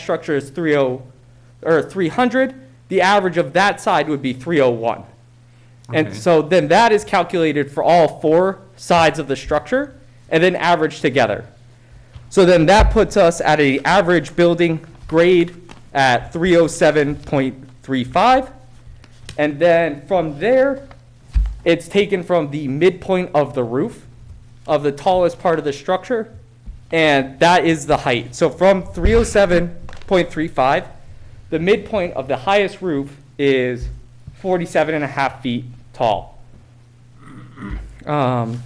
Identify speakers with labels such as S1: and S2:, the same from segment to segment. S1: structure is 30, or 300, the average of that side would be 301. And
S2: Okay.
S1: so then that is calculated for all four sides of the structure and then averaged together. So then that puts us at an average building grade at 307.35. And then from there, it's taken from the midpoint of the roof of the tallest part of the structure, and that is the height. So from 307.35, the midpoint of the highest roof is 47 and a half feet tall. Um,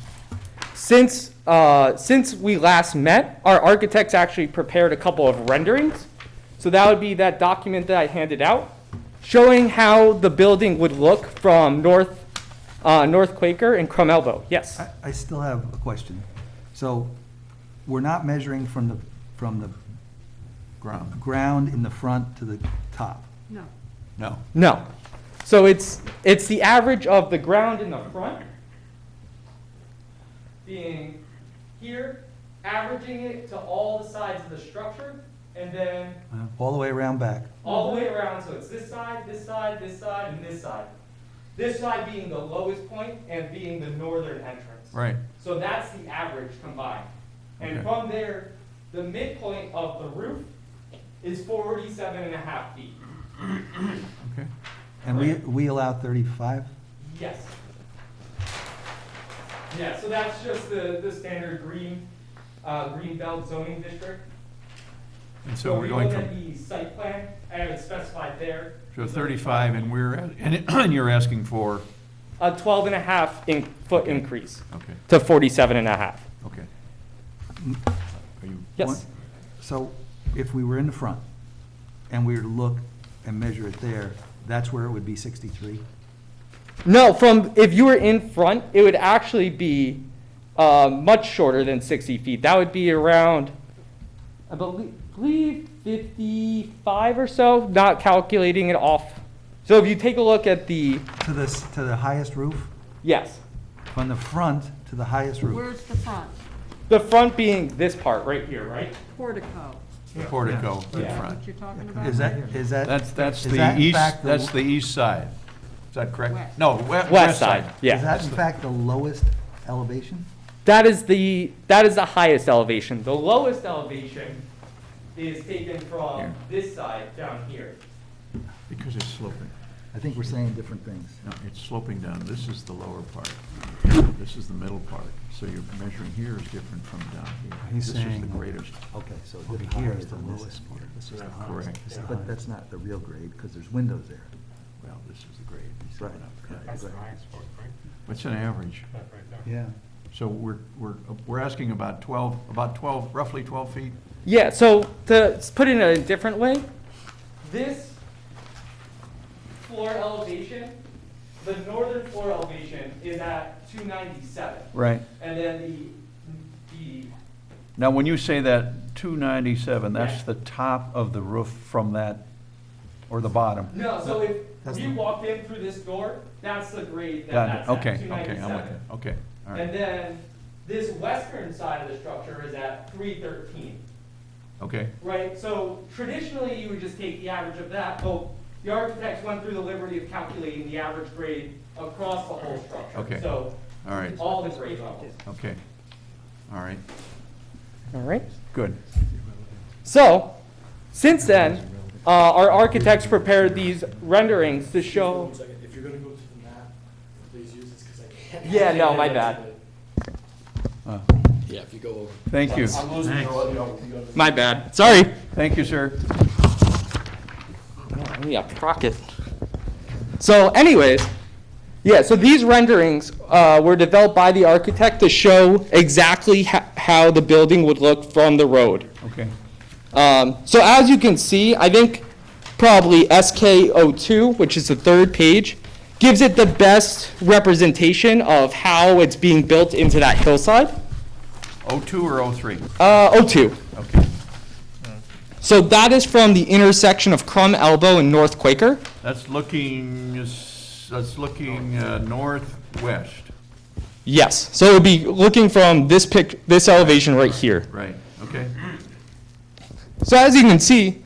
S1: since, uh, since we last met, our architects actually prepared a couple of renderings. So that would be that document that I handed out, showing how the building would look from North, uh, North Quaker and Crum Elbow. Yes.
S3: I, I still have a question. So, we're not measuring from the, from the
S2: Ground.
S3: ground in the front to the top?
S4: No.
S2: No.
S1: No. So it's, it's the average of the ground in the front being here, averaging it to all the sides of the structure, and then
S3: Uh, All the way around back?
S1: all the way around, so it's this side, this side, this side, and this side. This side being the lowest point and being the northern entrance.
S2: Right.
S1: So that's the average combined. And
S2: Okay.
S1: from there, the midpoint of the roof is 47 and a half feet.
S2: Okay.
S3: And we, we allow thirty-five?
S1: Yes. Yeah, so that's just the, the standard green, uh, green belt zoning district.
S2: And so
S1: if
S2: we're
S1: you
S2: going
S1: look at
S2: from,
S1: The site plan, I have it specified there.
S2: so 35, and we're, at- and you're asking for,
S1: A 12 and a half in, foot increase
S2: okay,
S1: to 47 and a half.
S2: okay. Are you,
S1: Yes.
S3: So, if we were in the front, and we were to look and measure it there, that's where it would be sixty-three?
S1: No, from, if you were in front, it would actually be, uh, much shorter than 60 feet. That would be around, I belie- believe, 55 or so, not calculating it off. So if you take a look at the,
S3: To the, s- to the highest roof?
S1: yes.
S3: From the front to the highest roof?
S4: Where's the front?
S1: The front being this part right here, right?
S4: Portico,
S2: the portico in
S1: Yeah.
S2: front.
S4: what you're talking about?
S3: Is that, is that?
S2: That's, that's
S3: is that
S2: the
S3: in
S2: east,
S3: fact the-
S2: that's the east side. Is that correct?
S4: West.
S2: No, we- west
S1: West side,
S2: side.
S3: Is
S1: yeah.
S3: that in fact the lowest elevation?
S1: That is the, that is the highest elevation. The lowest elevation is taken
S2: Here.
S1: from this side down here.
S2: Because it's sloping.
S3: I think we're saying different things.
S2: No, it's sloping down. This is the lower part. This is the middle part. So your measuring here is different from down here.
S3: He's
S2: This is the
S3: saying-
S2: greatest.
S3: Okay, so
S2: Over
S3: the
S2: here
S3: here
S2: is
S3: is the
S2: the
S3: lowest
S2: lowest
S3: part. This is the
S2: That's
S3: highest.
S2: correct.
S3: This is- But that's not the real grade, because there's windows there.
S2: Well, this is the grade. He's
S3: Right.
S2: going up.
S3: Right.
S5: That's the highest point, right?
S2: It's an average.
S5: That right there.
S3: Yeah.
S2: So we're, we're, we're asking about 12, about 12, roughly 12 feet?
S1: Yeah, so to s- put it in a different way, this floor elevation, the northern floor elevation is at 297.
S2: Right.
S1: And then the, the,
S2: Now, when you say that 297, that's
S1: Yeah.
S2: the top of the roof from that, or the bottom?
S1: no, so if
S3: That's
S1: you
S3: the-
S1: walked in through this door, that's the grade that
S2: Got
S1: that's
S2: it.
S1: at,
S2: Okay, okay, I'm with
S1: 297.
S2: you. Okay, all
S1: And
S2: right.
S1: then this western side of the structure is at 313.
S2: Okay,
S1: Right, so traditionally, you would just take the average of that, but the architects went through the liberty of calculating the average grade across the whole structure.
S2: Okay.
S1: So,
S2: all right,
S1: all the grade levels.
S2: okay. All right,
S1: All right.
S2: good.
S1: So, since then, uh, our architects prepared these renderings to show,
S6: One second, if you're gonna go to the map, please use this, because I can't.
S1: Yeah, no, my bad.
S2: Uh,
S6: Yeah, if you go over.
S2: Thank you.
S6: I'm losing your audio. You go to-
S1: my bad, sorry.
S2: Thank you, sir.
S1: Give me a pocket. So anyways, yeah, so these renderings uh, were developed by the architect to show exactly ho- how the building would look from the road.
S2: Okay,
S1: Um, So as you can see, I think probably SK02, which is the third page, gives it the best representation of how it's being built into that hillside.
S2: O2 Oh or 03?
S1: Uh, 02.
S2: Okay,
S1: So that is from the intersection of Crum Elbow and North Quaker.
S2: that's looking, s- that's looking uh, northwest,
S1: Yes, so it would be looking from this pic, this elevation right here.
S2: right, okay?
S1: So as you can see,